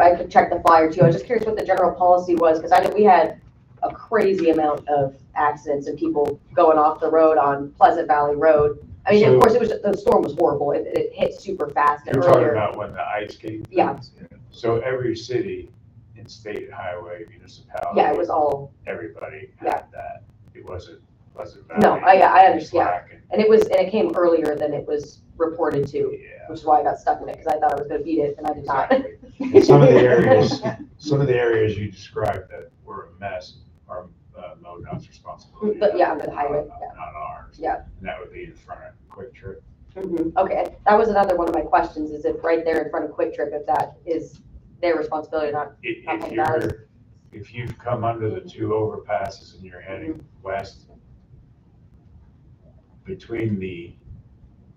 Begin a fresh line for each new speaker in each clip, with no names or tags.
I could check the flyer too. I was just curious what the general policy was, because I know we had a crazy amount of accidents and people going off the road on Pleasant Valley Road. I mean,
So-
of course, it was, the storm was horrible. It, it hit super fast and
You're talking
earlier.
about when the ice came?
Yeah.
So every city and state highway municipality.
Yeah, it was all,
Everybody
Yeah.
had that. It wasn't, wasn't.
No,
Valley,
I- I
it was
understand.
Black and-
and it was, and it came earlier than it was reported to,
Yeah.
which is why I got stuck in it, because I thought I was gonna beat it and I did not.
exactly. And some of the areas, some of the areas you described that were a mess are uh, MoDOT's responsibility.
But yeah,
not-
but highway,
not-
yeah.
Not ours.
Yeah.
And that would be in front of Quick Trip.
Mhm. Okay, that was another one of my questions, is if right there in front of Quick Trip, if that is their responsibility or not.
If, if
Okay, that is-
you're, if you've come under the two overpasses and you're heading west, between the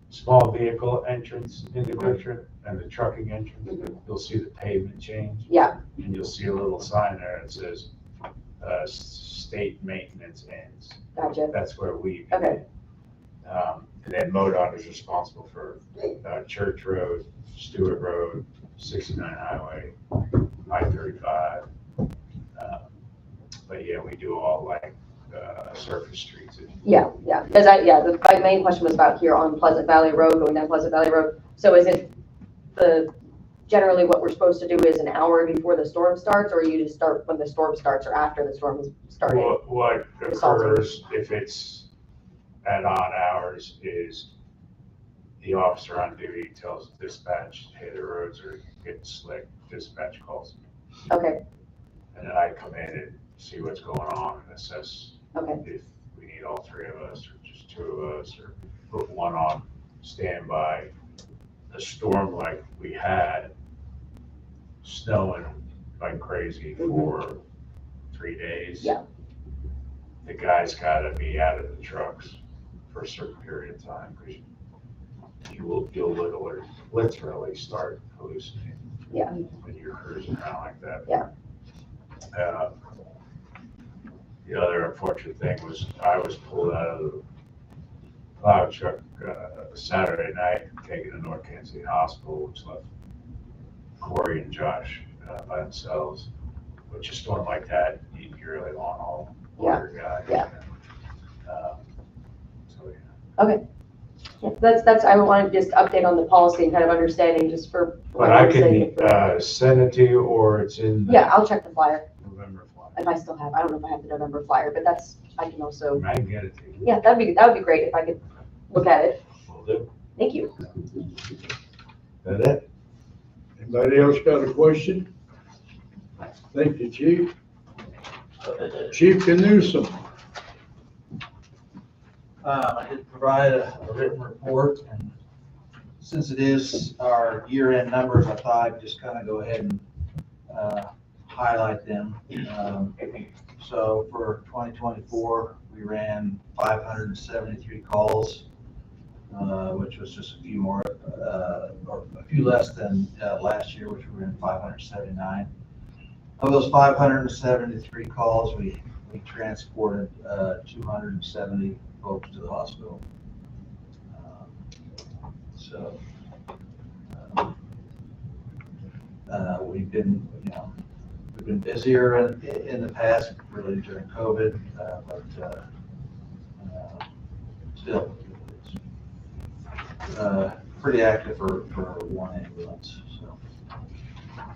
small vehicle entrance into Quick Trip and the trucking entrance,
Mhm.
you'll see the pavement change.
Yeah.
And you'll see a little sign there that says, uh, s- state maintenance ends.
Gotcha.
That's where we.
Okay.
Um, and then MoDOT is responsible for, uh, Church Road, Stewart Road, sixty-nine Highway, I thirty-five. Um, But yeah, we do all like, uh, surface streets.
Yeah, yeah, because I, yeah, the, my main question was about here on Pleasant Valley Road, going down Pleasant Valley Road. So is it the, generally what we're supposed to do is an hour before the storm starts, or you just start when the storm starts or after the storm has started?
What, what occurs if it's at odd hours is the officer on duty tells dispatch, hey, the roads are getting slick, dispatch calls me.
Okay,
And then I come in and see what's going on and assess
okay,
if we need all three of us or just two of us or put one on standby. A storm like we had, snowing like crazy for three days.
Mm-hmm. Yeah.
The guys gotta be out of the trucks for a certain period of time because you will, you'll literally, literally start hallucinating.
Yeah.
When you're cruising around like that.
Yeah.
Uh, the other unfortunate thing was I was pulled out of the plow truck uh, Saturday night, taken to North Kansas City Hospital, which left Corey and Josh uh, by themselves. Which a storm like that, you- you're really long haul water guy.
Yeah,
Um, So, yeah.
Yeah, that's, that's, I wanted just to update on the policy and kind of understanding just for.
But I can uh, send it to you, or it's in
Yeah,
the
I'll check the flyer,
November flyer.
if I still have, I don't know if I have the November flyer, but that's, I can also,
I can get it to you.
yeah, that'd be, that would be great if I could look at it.
Will do.
Thank you.
That it?
Anybody else got a question? Thank you, Chief.
Uh,
Chief Newsom.
Um, I did provide a a written report, and since it is our year-end numbers, I thought I'd just kind of go ahead and uh, highlight them. Um, So for 2024, we ran 573 calls, uh, which was just a few more, uh, or a few less than uh, last year, which we ran 579. Of those 573 calls, we we transported uh, 270 folks to the hospital. Um, So, um, uh, we've been, you know, we've been busier in, in the past, really during COVID, uh, but, uh, uh, still, it's, uh, pretty active for, for one ambulance, so.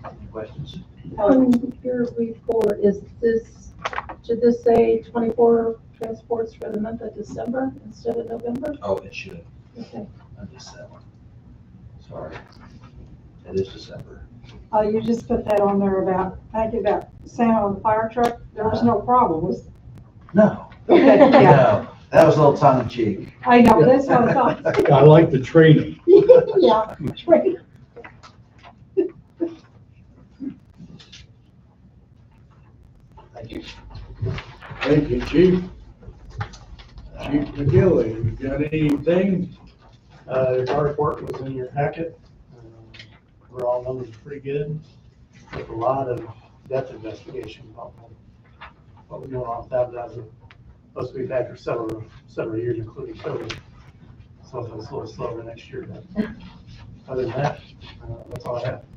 Any questions?
On your report, is this, should this say twenty-four transports for the month of December instead of November?
Oh, it should.
Okay.
I missed that one. Sorry. It is December.
Uh, you just put that on there about, thank you about Sam on the fire truck, there was no problem, was,
No.
okay, yeah,
No, that was a little tongue in cheek.
I know, that's what I thought,
I like the training.
yeah, right.
Thank you.
Thank you, Chief. Chief McGilly, you got anything?
Uh, our report was in your packet. Um, Overall numbers are pretty good. There's a lot of depth investigation about what- what was going on with that, that was, plus we've had for several, several years, including COVID. So it's a little slower next year, but other than that, uh, that's all I have.